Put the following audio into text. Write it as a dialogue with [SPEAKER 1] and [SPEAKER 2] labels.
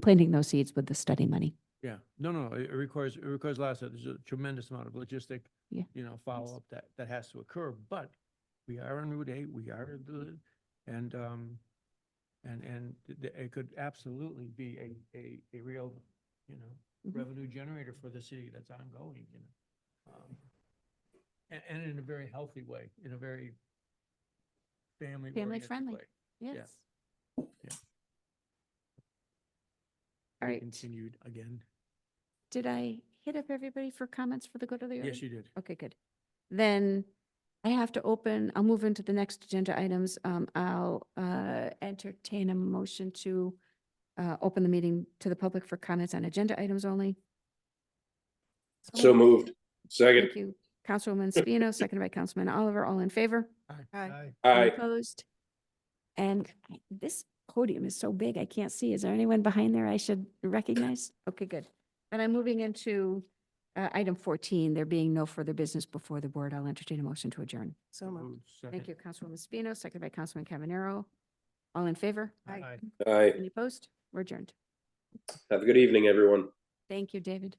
[SPEAKER 1] planting those seeds with the study money.
[SPEAKER 2] Yeah, no, no, it it requires, it requires a lot, of stuff. there's a tremendous amount of logistic,
[SPEAKER 1] Yeah.
[SPEAKER 2] you know, follow-up that, that has to occur, but we are on Route 8, we are, the- and, um, and, and th- th- it could absolutely be a, a, a real, you know,
[SPEAKER 1] Mhm.
[SPEAKER 2] revenue generator for the city that's ongoing, you know? Um, And, and in a very healthy way, in a very family-oriented
[SPEAKER 1] friendly.
[SPEAKER 2] way.
[SPEAKER 1] Yes.
[SPEAKER 2] Yeah.
[SPEAKER 1] All right,
[SPEAKER 2] Continued again.
[SPEAKER 1] did I hit up everybody for comments for the good of the order?
[SPEAKER 2] Yes, you did.
[SPEAKER 1] Okay, good. Then I have to open, I'll move into the next agenda items. Um, I'll, uh, entertain a motion to, uh, open the meeting to the public for comments on agenda items only.
[SPEAKER 3] So moved. Second,
[SPEAKER 1] Thank you. Councilwoman Spino, seconded by Councilman Oliver, all in favor?
[SPEAKER 2] Aye.
[SPEAKER 1] Any
[SPEAKER 3] aye.
[SPEAKER 1] Opposed? And I- this podium is so big, I can't see. Is there anyone behind there I should recognize? Okay, good. And I'm moving into uh, item 14, there being no further business before the board. I'll entertain a motion to adjourn.
[SPEAKER 4] So moved.
[SPEAKER 1] Thank you, Councilwoman Spino, seconded by Councilman Cavanero. All in favor?
[SPEAKER 4] Aye.
[SPEAKER 3] Aye.
[SPEAKER 1] Any opposed? We're adjourned.
[SPEAKER 3] Have a good evening, everyone.
[SPEAKER 1] Thank you, David.